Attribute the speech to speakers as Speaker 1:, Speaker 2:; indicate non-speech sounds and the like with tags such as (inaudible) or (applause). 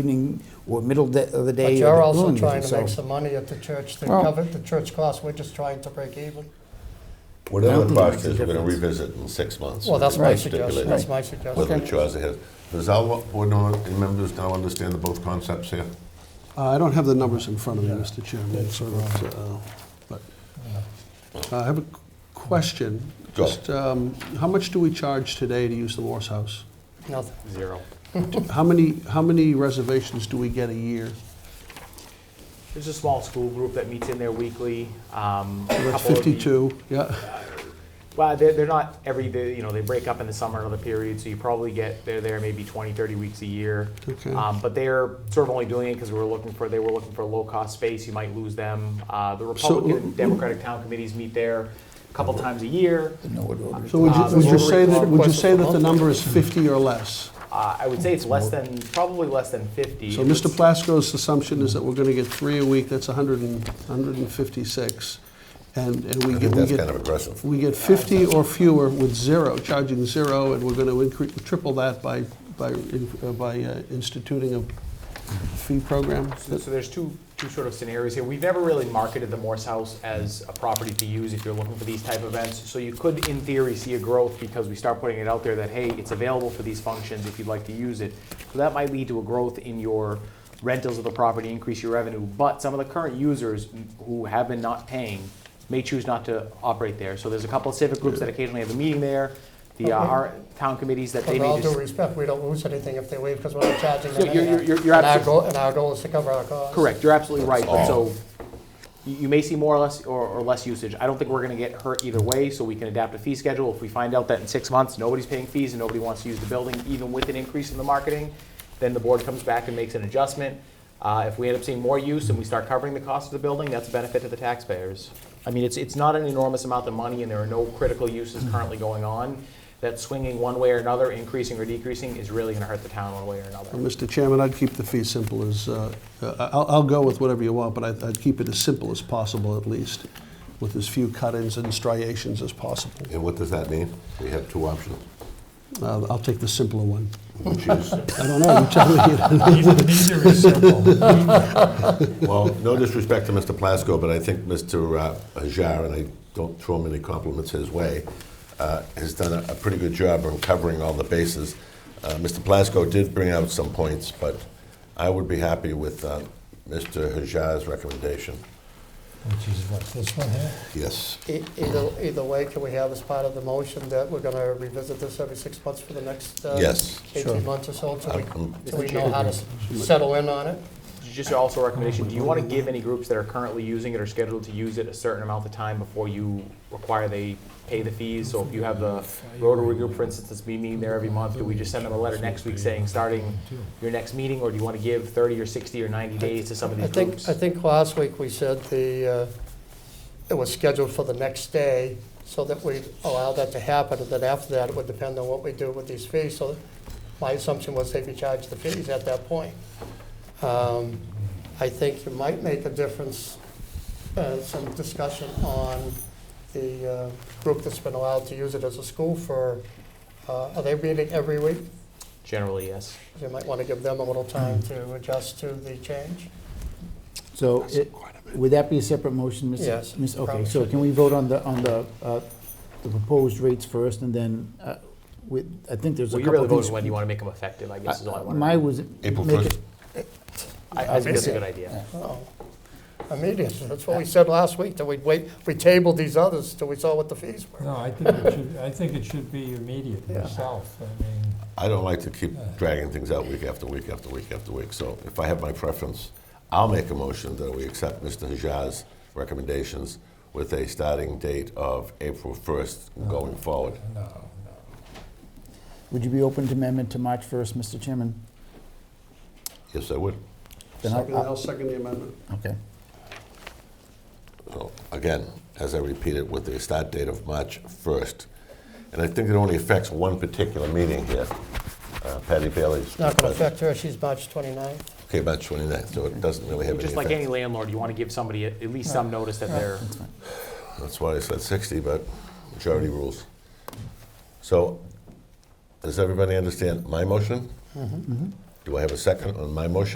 Speaker 1: evening or middle de- of the day.
Speaker 2: But
Speaker 1: or
Speaker 2: you're
Speaker 1: the
Speaker 2: also
Speaker 1: noon,
Speaker 2: trying to
Speaker 1: so-
Speaker 2: make some money at the church to
Speaker 1: Well-
Speaker 2: cover the church costs. We're just trying to break even.
Speaker 1: I
Speaker 3: Whatever
Speaker 1: don't
Speaker 3: the
Speaker 1: think it
Speaker 3: cost
Speaker 1: makes a
Speaker 3: is, we're gonna
Speaker 1: difference.
Speaker 3: revisit in six months.
Speaker 2: Well, that's my
Speaker 3: Right.
Speaker 2: suggestion.
Speaker 3: Stipulate
Speaker 2: That's my suggestion.
Speaker 3: Whether it draws ahead. Does all board members now understand the both concepts here?
Speaker 4: Uh, I don't have the numbers in front of me, Mr. Chairman, it's sort of, uh, but uh, I have a question.
Speaker 3: Go.
Speaker 4: Just, um, how much do we charge today to use the Morse House?
Speaker 2: No,
Speaker 5: Zero.
Speaker 4: How many, how many reservations do we get a year?
Speaker 5: There's a small school group that meets in there weekly. um, a
Speaker 4: That's
Speaker 5: couple of the-
Speaker 4: 52, yeah,
Speaker 5: Well, they're, they're not every, they- you know, they break up in the summer and other periods, so you probably get, they're there maybe 20, 30 weeks a year.
Speaker 4: Okay.
Speaker 5: Um, But they're sort of only doing it because we were looking for, they were looking for low-cost space, you might lose them. Uh, The Republican and Democratic town committees meet there a couple times a year.
Speaker 1: No, it would-
Speaker 4: so would
Speaker 5: Uh,
Speaker 4: you, would you
Speaker 5: Rotary
Speaker 4: say that,
Speaker 5: Club
Speaker 4: would you
Speaker 2: requests
Speaker 4: say
Speaker 2: a
Speaker 4: that the
Speaker 2: month.
Speaker 4: number is 50 or less?
Speaker 5: Uh, I would say it's less than, probably less than 50.
Speaker 4: So
Speaker 5: It
Speaker 4: Mr.
Speaker 5: was-
Speaker 4: Plasko's assumption is that we're gonna get three a week, that's 100 and, 156, and, and we
Speaker 3: I think
Speaker 4: get, we
Speaker 3: that's
Speaker 4: get
Speaker 3: kind of aggressive.
Speaker 4: We get 50 or fewer with zero, charging zero, and we're going to increase, triple that by, by, in- uh, by uh, instituting a fee program.
Speaker 5: So so there's two, two sort of scenarios here. We've never really marketed the Morse House as a property to use if you're looking for these type events. So you could, in theory, see a growth because we start putting it out there that, hey, it's available for these functions if you'd like to use it. So that might lead to a growth in your rentals of the property, increase your revenue. But some of the current users who have been not paying may choose not to operate there. So there's a couple of civic groups that occasionally have a meeting there, the uh,
Speaker 2: Okay.
Speaker 5: our town committees that they
Speaker 2: with
Speaker 5: may
Speaker 2: all
Speaker 5: just.
Speaker 2: due respect, we don't lose anything if they leave because we're not charging them
Speaker 5: Yeah, you're-
Speaker 2: anyhow.
Speaker 5: you're- you're
Speaker 2: And our
Speaker 5: absolut-
Speaker 2: goal, and our goal is to cover our costs.
Speaker 5: Correct, you're absolutely right, but
Speaker 3: That's
Speaker 5: so,
Speaker 3: all.
Speaker 5: you you may see more or less, or, or less usage. I don't think we're gonna get hurt either way, so we can adapt a fee schedule. If we find out that in six months, nobody's paying fees and nobody wants to use the building, even with an increase in the marketing, then the board comes back and makes an adjustment. Uh, if we end up seeing more use and we start covering the cost of the building, that's a benefit to the taxpayers. I mean, it's, it's not an enormous amount of money and there are no critical uses currently going on. That swinging one way or another, increasing or decreasing, is really gonna hurt the town one way or another.
Speaker 4: Uh, Mr. Chairman, I'd keep the fee simple as, uh, uh, I'll, I'll go with whatever you want, but I'd, I'd keep it as simple as possible at least, with as few cut-ins and striations as possible.
Speaker 3: And what does that mean? We have two options,
Speaker 4: Uh, I'll take the simpler one.
Speaker 3: which is,
Speaker 4: (laughs) I don't know, you tell me.
Speaker 6: Neither is simple.
Speaker 3: well, no disrespect to Mr. Plasko, but I think Mr. uh, Hajar, and I don't throw many compliments his way, uh, has done a- a pretty good job on covering all the bases. Uh, Mr. Plasko did bring out some points, but I would be happy with uh, Mr. Hajar's recommendation.
Speaker 6: Which is what, this one here?
Speaker 3: Yes.
Speaker 2: E- Either, either way, can we have as part of the motion that we're gonna revisit this every six months for the next? uh,
Speaker 3: Yes.
Speaker 2: Eighteen months or so, so we,
Speaker 3: Um,
Speaker 2: so we know how to s- settle in on it?
Speaker 5: Just also a recommendation, do you want to give any groups that are currently using it or scheduled to use it a certain amount of time before you require they pay the fees? So if you have the Rotary group, for instance, that's been meeting there every month, do we just send them a letter next week saying, starting your next meeting? Or do you want to give thirty or sixty or ninety days to some of
Speaker 2: I
Speaker 5: these
Speaker 2: think,
Speaker 5: groups?
Speaker 2: I think last week we said the, uh, it was scheduled for the next day, so that we allow that to happen, and then after that, it would depend on what we do with these fees. So my assumption was they'd be charged the fees at that point. Um, I think it might make a difference, uh, some discussion on the uh, group that's been allowed to use it as a school for, uh, are they meeting every week?
Speaker 5: Generally, yes.
Speaker 2: You might want to give them a little time to adjust to the change.
Speaker 1: So it- would that be a separate motion, Ms.?
Speaker 2: Yes,
Speaker 1: Ms. Okay,
Speaker 2: probably
Speaker 1: so
Speaker 2: should
Speaker 1: can we vote on the, on the, uh, the proposed rates first and then, uh, with, I think there's a
Speaker 5: Well, you're
Speaker 1: couple
Speaker 5: really
Speaker 1: of
Speaker 5: voting
Speaker 1: these.
Speaker 5: whether you want to make them effective, I guess is all I
Speaker 1: Uh,
Speaker 5: want
Speaker 1: My
Speaker 5: to.
Speaker 1: was.
Speaker 3: April
Speaker 1: make it-
Speaker 3: first.
Speaker 5: I I think that's a good idea.
Speaker 2: Oh, immediately, that's what we said last week, that we'd wait, we tabled these others till we saw what the fees were.
Speaker 6: No, I think it should, I think it should be immediate
Speaker 2: Yeah.
Speaker 6: myself. I mean,
Speaker 3: I don't like to keep dragging things out week after week after week after week, so if I have my preference, I'll make a motion that we accept Mr. Hajar's recommendations with a starting date of April 1st going forward.
Speaker 6: no,
Speaker 1: Would you be open to amendment to March 1st, Mr. Chairman?
Speaker 3: Yes, I would.
Speaker 1: Then I'll-
Speaker 4: Second- I'll second the amendment.
Speaker 1: Okay.
Speaker 3: So again, as I repeat it, with a start date of March 1st. And I think it only affects one particular meeting here, Uh, Patty Bailey's.
Speaker 2: It's not going to affect her, she's March 29th.
Speaker 3: Okay, March 29th, so it doesn't really have any
Speaker 5: Just like any
Speaker 3: effect.
Speaker 5: landlord, you want to give somebody at at least some notice that they're,
Speaker 3: That's why I said 60, but majority rules. So, does everybody understand my motion? Do I have a second on my motion?